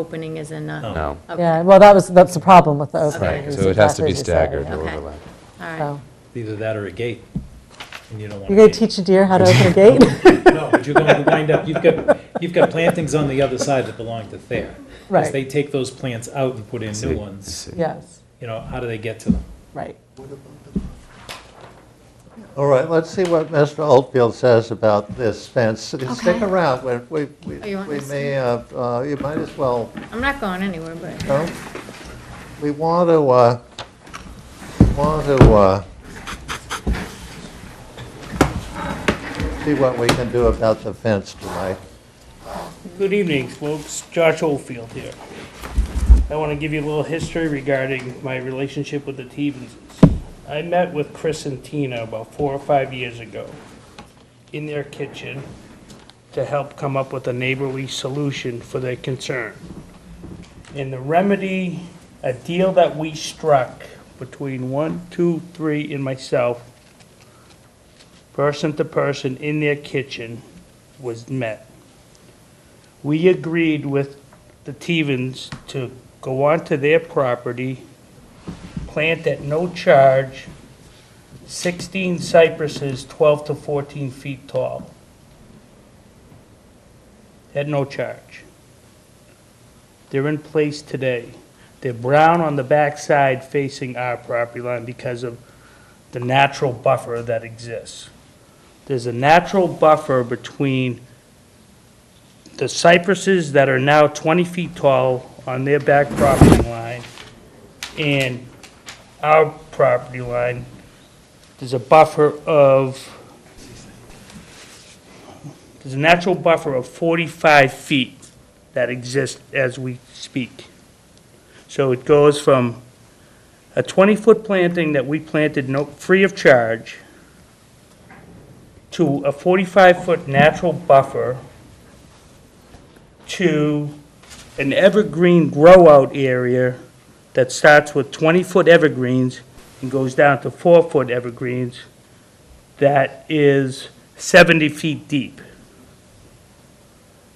opening is in the, No. okay, Yeah, well, that was, that's the problem with the Right, opening. Okay. is so exactly as you said, yeah. or Okay. overlap. all right. So, Either that or a gate, and you don't want. You're a going gate. to teach a deer how to open a gate? No, but you're going to wind up, you've got, you've got plantings on the other side that belong to Thayer. 'Cause Right. they take those plants out and put in See, new ones, see. Yes, you know, how do they get to them? right. All right, let's see what Mr. Oldfield says about this fence. Stick Okay. around, we, we, Oh, you want we me to may, uh, uh, you might as well, I'm not going anywhere, but, no? We want to, uh, want to, uh, see what we can do about the fence tonight. Good evening, folks. Josh Oldfield here. I want to give you a little history regarding my relationship with the Tevenses. I met with Chris and Tina about four or five years ago in their kitchen to help come up with a neighborly solution for their concern. And the remedy, a deal that we struck between one, two, three, and myself, person to person in their kitchen, was met we agreed with the Tevens to go onto their property, plant at no charge 16 cypresses 12 to 14 feet tall. At no charge. They're in place today. They're brown on the backside facing our property line because of the natural buffer that exists. There's a natural buffer between the cypresses that are now 20 feet tall on their back property line and our property line, there's a buffer of, there's a natural buffer of 45 feet that exists as we speak. So it goes from a 20-foot planting that we planted no, free of charge to a 45-foot natural buffer to an evergreen grow-out area that starts with 20-foot evergreens and goes down to four-foot evergreens that is 70 feet deep.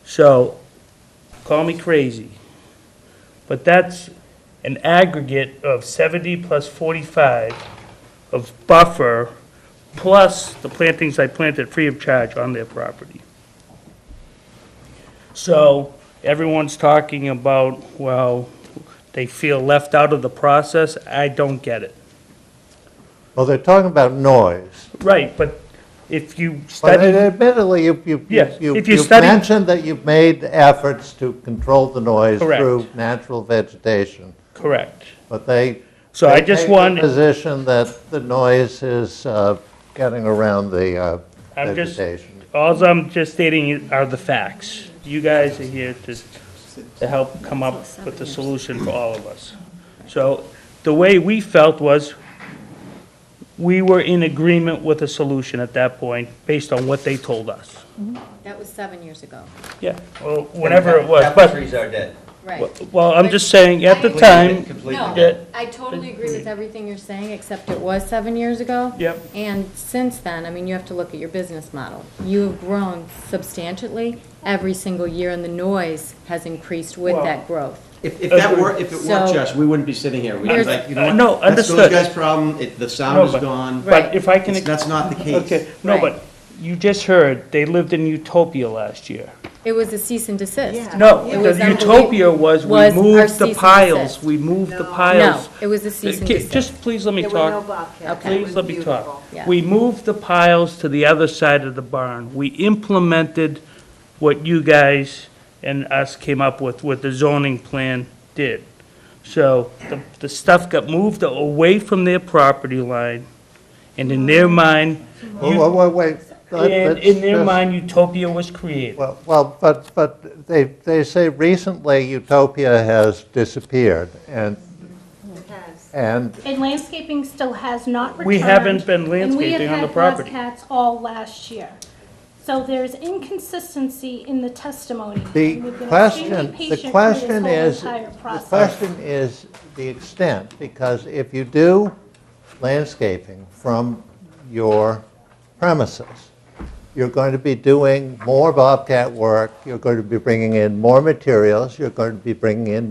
So, call me crazy, but that's an aggregate of 70 plus 45 of buffer, plus the plantings I planted free of charge on their property. So everyone's talking about, well, they feel left out of the process. I don't get it. Well, they're talking about noise. Right, but if you But study, admittedly, you, you, Yes, you- if you you've study- mentioned that you've made efforts to control the noise Correct. through natural vegetation, correct. but they. So I they just take the wanted, Position that the noise is uh, getting around the uh, I'm just- vegetation. alls I'm just stating are the facts. You guys are here to, to help come up with the solution for all of us. So the way we felt was we were in agreement with a solution at that point based on what they told us. that was seven years ago, Yeah, well, whatever it was, Apple but, trees are dead. right. well, I'm just saying, at the But- time, Completely dead. No, that- I totally agree with everything you're saying, except it was seven years ago. Yep. And since then, I mean, you have to look at your business model. You have grown substantially every single year, and the noise has increased with Well- that growth. If, if that were, if it So- weren't Josh, we wouldn't be sitting here. We'd be Here's- like, you know what? Uh, No, understood. That's those guys' problem. It, the No, sound is but- gone. Right. but if I can, It's- That's not the case. okay, no, Right. but you just heard, they lived in Utopia last year. It was a cease and desist. No, It was the Utopia was, we was our moved cease the and desist. piles, we moved the No, piles. it was a cease and Okay, desist. Just please let me talk. Okay. Please let me talk. Yeah. We moved the piles to the other side of the barn. We implemented what you guys and us came up with, what the zoning plan did. So the, the stuff got moved away from their property line, and in their mind, Wait, wait, wait. let- and let's in their just- mind, utopia was created. Well- Well, but, but they, they say recently utopia has disappeared and, and And landscaping still has not returned. We haven't been landscaping on the And property. we have had Bobcats all last year. So there's inconsistency in the testimony. The We've been question, extremely the patient through this question whole is, entire the process. question is the extent, because if you do landscaping from your premises, You're going to be doing more Bobcat work, you're going to be bringing in more materials, you're going to be bringing in